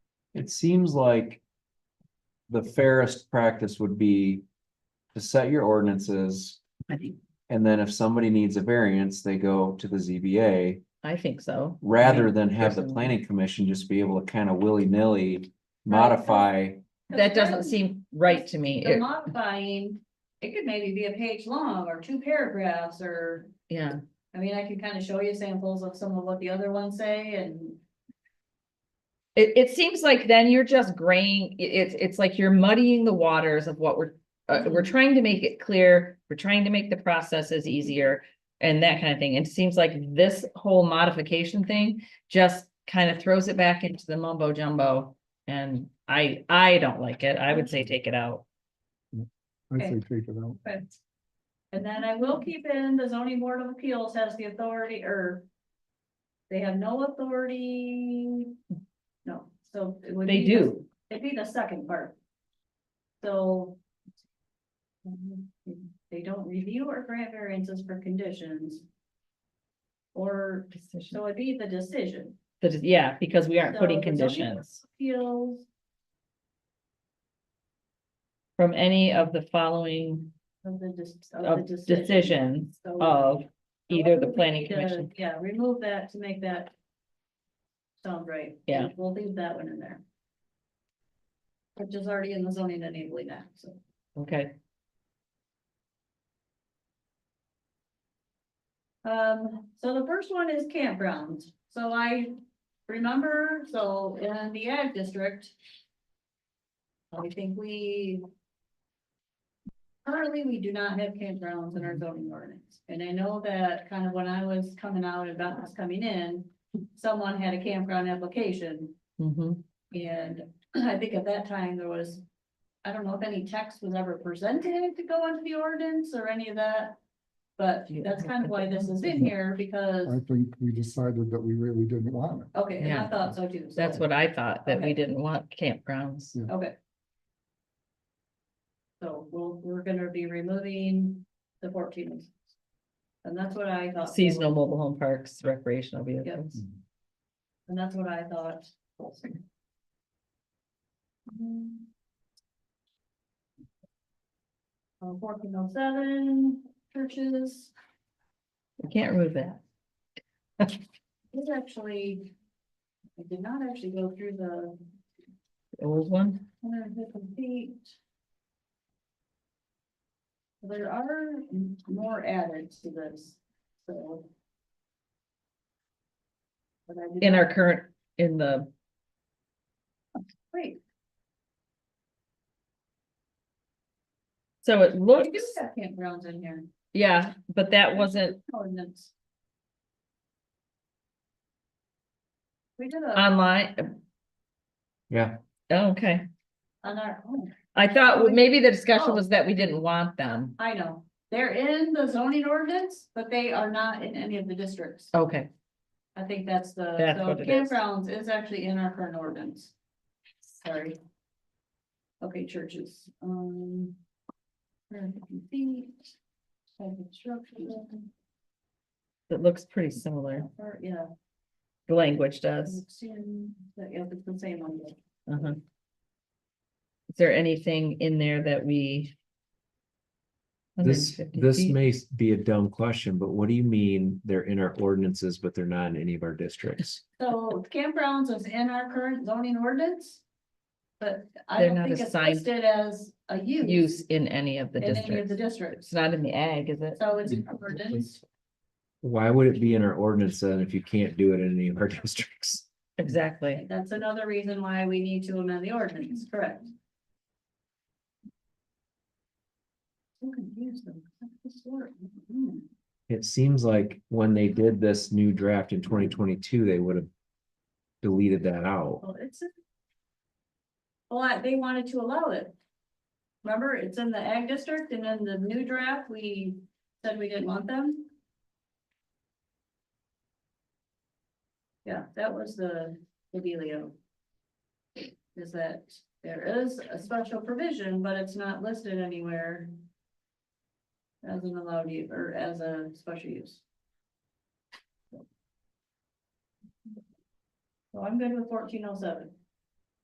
It seems like the fairest practice would be to set your ordinances, I think, and then if somebody needs a variance, they go to the ZBA. I think so. Rather than have the Personally. planning commission just be able to kind of willy-nilly modify, That doesn't seem right to me. The It- modifying, it could maybe be a page long or two paragraphs or, Yeah, I mean, I can kind of show you samples of some of what the other ones say and. it, it seems like then you're just graying, it, it's, it's like you're muddying the waters of what we're, uh, we're Mm-hmm. trying to make it clear, we're trying to make the processes easier and that kind of thing. And it seems like this whole modification thing just kind of throws it back into the mumbo jumbo. And I, I don't like it. I would Mm-hmm. say take it out. I Okay. say take it out. And then I will keep in, the zoning board of appeals has the authority or. They have no authority, no, so. it would They be the- do. It'd be the second part. So. They don't review or grant variances for conditions. Or, so it'd be the decision. That is- yeah, because we aren't So putting the zoning board of conditions Appeals. from any of the following Of the, dis- of of the decision. decisions So- of so either the we planning need to- commission. Yeah, remove that to make that. Sound right. Yeah. We'll leave that one in there. Which is already in the zoning enabling act, so. Okay, Um, so the first one is campgrounds. So I remember, so in the ag district. I think we. Currently, we do not have campgrounds in our zoning ordinance, and I know that kind of when I was coming out and about was coming in. Someone had a campground application hmm and I think at that time there was, I don't know if any text was ever presented to go into the ordinance or any of that. But Yeah. that's kind of why this is in here I because, think we decided that we really didn't want it. okay, and I Yeah. thought so too. so- that's what I thought, that we Okay. didn't want campgrounds. Yeah. Okay. So we'll, we're gonna be removing the fourteen. And that's what I thought. Seasonal mobile home parks, recreational vehicles. And that's what I thought. Fourteen oh seven churches. We can't remove that. It's actually, I did not actually go through the The Old one, one hundred and fifty feet. There are m- more added to this, so. But I did in not- our current, in the, Wait, so it we looks, do have campgrounds in here. yeah, but that wasn't Ordinance. We did a, Um, online. uh, Yeah. Oh, Okay, on our, own. I thought maybe the discussion Oh. was that we didn't want them. I know, they're in the zoning ordinance, but they are not in any of the districts. Okay, I think that's the, That's so what it is. campgrounds is actually in our current ordinance. Sorry. Okay, churches, um. 150 feet, side of construction, it looks pretty similar. or, Yeah. The language does. it's in- but, yeah, it's the same one. Uh-huh. Is there anything in there that we? this, 150 this feet? may s- be a dumb question, but what do you mean they're in our ordinances, but they're not in any of our districts? So campgrounds is in our current zoning ordinance. But I They're don't not think it's assigned listed as a use. Use in any of the In any of districts. the districts, It's not in the ag, is it? so it's in our ordinance, Why would it be in our ordinance then if you can't do it in any of our districts? Exactly. that's another reason why we need to amend the ordinance, correct? So confused though, 'cause that's the sort, mm, It seems like when they did this new draft in twenty twenty-two, they would have deleted that out. Well, it's. a- Well, I- they wanted to allow it. Remember, it's in the ag district and in the new draft, we said we didn't want them. Yeah, that was the, the dealio. Is that there is a special provision, but it's not listed anywhere. As an allowed use or as a special use. So I'm good with fourteen oh seven.